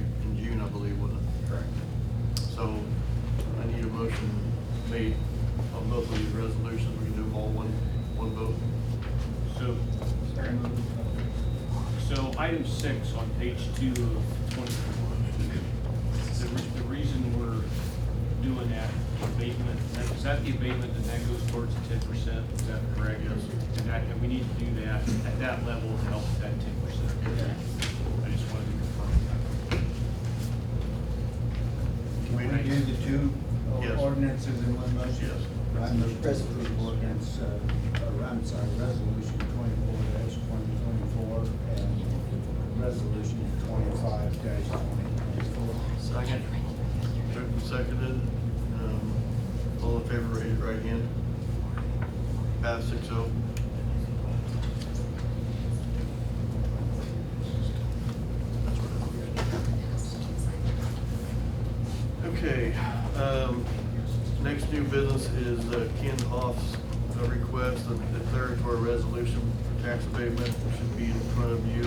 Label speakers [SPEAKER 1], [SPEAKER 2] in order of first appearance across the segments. [SPEAKER 1] I believe, wasn't it?
[SPEAKER 2] Correct.
[SPEAKER 1] So I need a motion made on both of these resolutions. We can do them all one, one vote.
[SPEAKER 3] So,
[SPEAKER 2] Sorry.
[SPEAKER 3] so item six on page two of twenty-four. The, re- the reason we're doing that abatement, that- is that the abatement and that goes towards the ten percent? Is that correct?
[SPEAKER 1] Yes.
[SPEAKER 3] And that, and we need to do that at that level to help that ten percent. I just wanted to confirm
[SPEAKER 2] Can we do the two
[SPEAKER 1] Yes.
[SPEAKER 2] ordinances in one motion?
[SPEAKER 1] Yes.
[SPEAKER 2] I'm the president of ordinance, uh, or I'm sorry, resolution twenty-four twenty twenty-four and resolution twenty-five twenty twenty-four.
[SPEAKER 1] Second. Moved and seconded. Um, All in favor, raise your right hand. Pass six oh. That's what I did. Okay, um, next new business is uh, Ken Hoff's uh, request of declaratory resolution for tax abatement should be in front of you.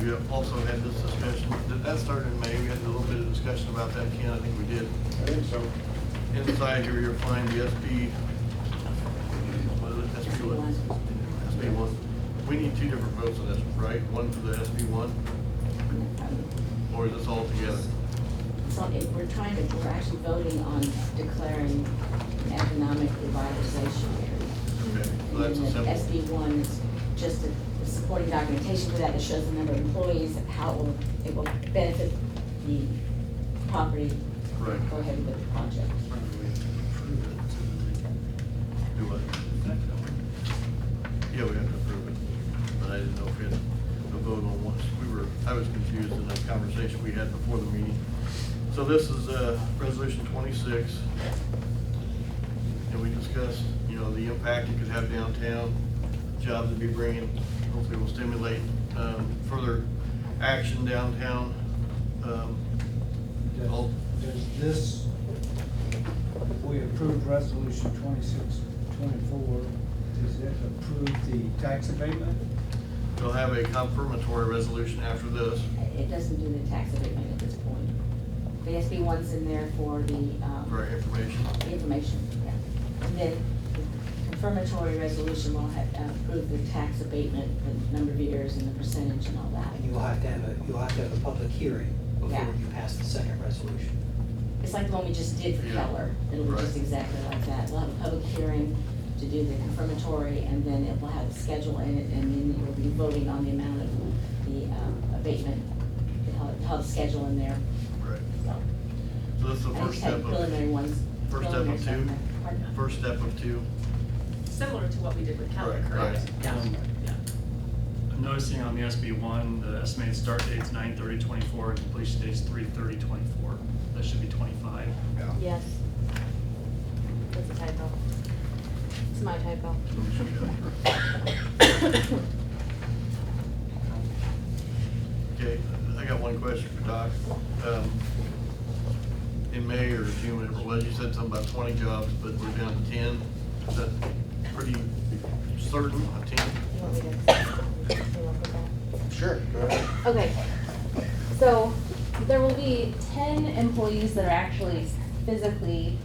[SPEAKER 1] We have also had this discussion, did that start in May? We had a little bit of discussion about that, Ken, I think we did.
[SPEAKER 2] I think so.
[SPEAKER 1] Inside here, you'll find the SP, what is it, SP one? SP one. We need two different votes on this, right? One for the SP one, or is this all together?
[SPEAKER 4] So if we're trying to, we're actually voting on declaring an economic revitalization area.
[SPEAKER 1] Okay, so
[SPEAKER 4] And
[SPEAKER 1] that's a
[SPEAKER 4] then the
[SPEAKER 1] simple.
[SPEAKER 4] SB one is just a supporting documentation for that that shows the number of employees, how it will, it will benefit the property.
[SPEAKER 1] Right.
[SPEAKER 4] Go ahead with the project.
[SPEAKER 1] Do what? Yeah, we have to approve it, but I didn't know if we had a vote on one. We were, I was confused in the conversation we had before the meeting. So this is, uh, resolution twenty-six. And we discussed, you know, the impact it could have downtown, jobs it'd be bringing, hopefully will stimulate, um, further action downtown. Um,
[SPEAKER 2] Does,
[SPEAKER 1] All-
[SPEAKER 2] does this, we approved resolution twenty-six twenty-four, does it approve the tax abatement?
[SPEAKER 1] They'll have a confirmatory resolution after this.
[SPEAKER 4] It doesn't do the tax abatement at this point. The SB one's in there for the, um.
[SPEAKER 1] for our information.
[SPEAKER 4] the information, yeah. And then the confirmatory resolution will have, approve the tax abatement, the number of years and the percentage and all that.
[SPEAKER 5] And you'll have to have a, you'll have to have a public hearing
[SPEAKER 4] Yeah.
[SPEAKER 5] before you pass the second resolution.
[SPEAKER 4] It's like the one we just did for
[SPEAKER 1] Yeah.
[SPEAKER 4] Keller. It'll be just
[SPEAKER 1] Right.
[SPEAKER 4] exactly like that. We'll have a public hearing to do the confirmatory, and then it will have a schedule in it, and then it will be voting on the amount of the um, abatement. It'll it'll have a schedule in there,
[SPEAKER 1] Right.
[SPEAKER 4] so.
[SPEAKER 1] So this is the
[SPEAKER 4] I
[SPEAKER 1] first
[SPEAKER 4] just had
[SPEAKER 1] step
[SPEAKER 4] Preliminary
[SPEAKER 1] of,
[SPEAKER 4] ones.
[SPEAKER 1] first step of
[SPEAKER 4] preliminary stuff
[SPEAKER 1] two?
[SPEAKER 4] in there. Pardon?
[SPEAKER 1] first step of two.
[SPEAKER 6] Similar to what we did with Keller,
[SPEAKER 1] Right, right.
[SPEAKER 6] correct? Yeah,
[SPEAKER 7] Um,
[SPEAKER 6] yeah.
[SPEAKER 7] I'm noticing on the SB one, the estimated start date's 9/30/24 and completion date's 3/30/24. That should be twenty-five.
[SPEAKER 6] Yes. That's a typo. It's my typo.
[SPEAKER 1] Okay, I got one question for Doc. Um, In May or June, whatever it was, you said something about twenty jobs, but we're down to ten. Is that pretty certain, a ten?
[SPEAKER 8] You want me to- you want me to- Okay, so there will be ten employees that are actually physically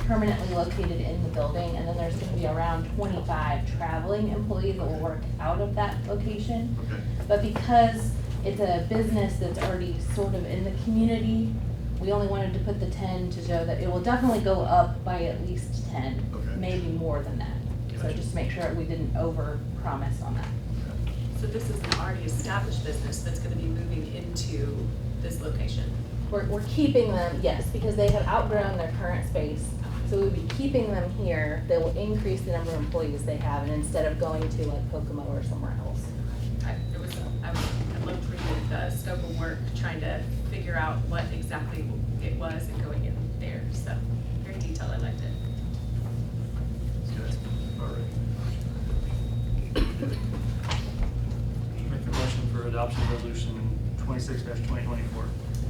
[SPEAKER 8] permanently located in the building, and then there's gonna be around twenty-five traveling employees that will work out of that location.
[SPEAKER 1] Okay,
[SPEAKER 8] But because it's a business that's already sort of in the community, we only wanted to put the ten to show that it will definitely go up by at least ten,
[SPEAKER 1] Okay.
[SPEAKER 8] maybe more than that. So
[SPEAKER 1] Gotcha.
[SPEAKER 8] just to make sure we didn't over promise on that.
[SPEAKER 6] So this is an already established business that's gonna be moving into this location.
[SPEAKER 8] We're, we're keeping them, yes, because they have outgrown their current space. So we'll be keeping them here, that will increase the number of employees they have, and instead of going to like Kokomo or somewhere else.
[SPEAKER 6] I, it was, I was- I looked through the, the scope of work, trying to figure out what exactly it was and going in there, so very detailed, I liked it.
[SPEAKER 1] okay, all right.
[SPEAKER 7] Make the motion for adoption of resolution twenty-six twenty twenty-four.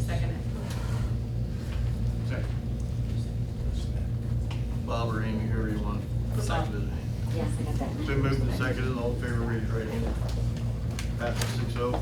[SPEAKER 6] Second,
[SPEAKER 7] Second.
[SPEAKER 1] Bob or Amy, whoever you want.
[SPEAKER 6] Bob.
[SPEAKER 1] Seconded it.
[SPEAKER 4] Yes, I got that.
[SPEAKER 1] Been moved and seconded, all in favor, raise your right hand. Passes six oh.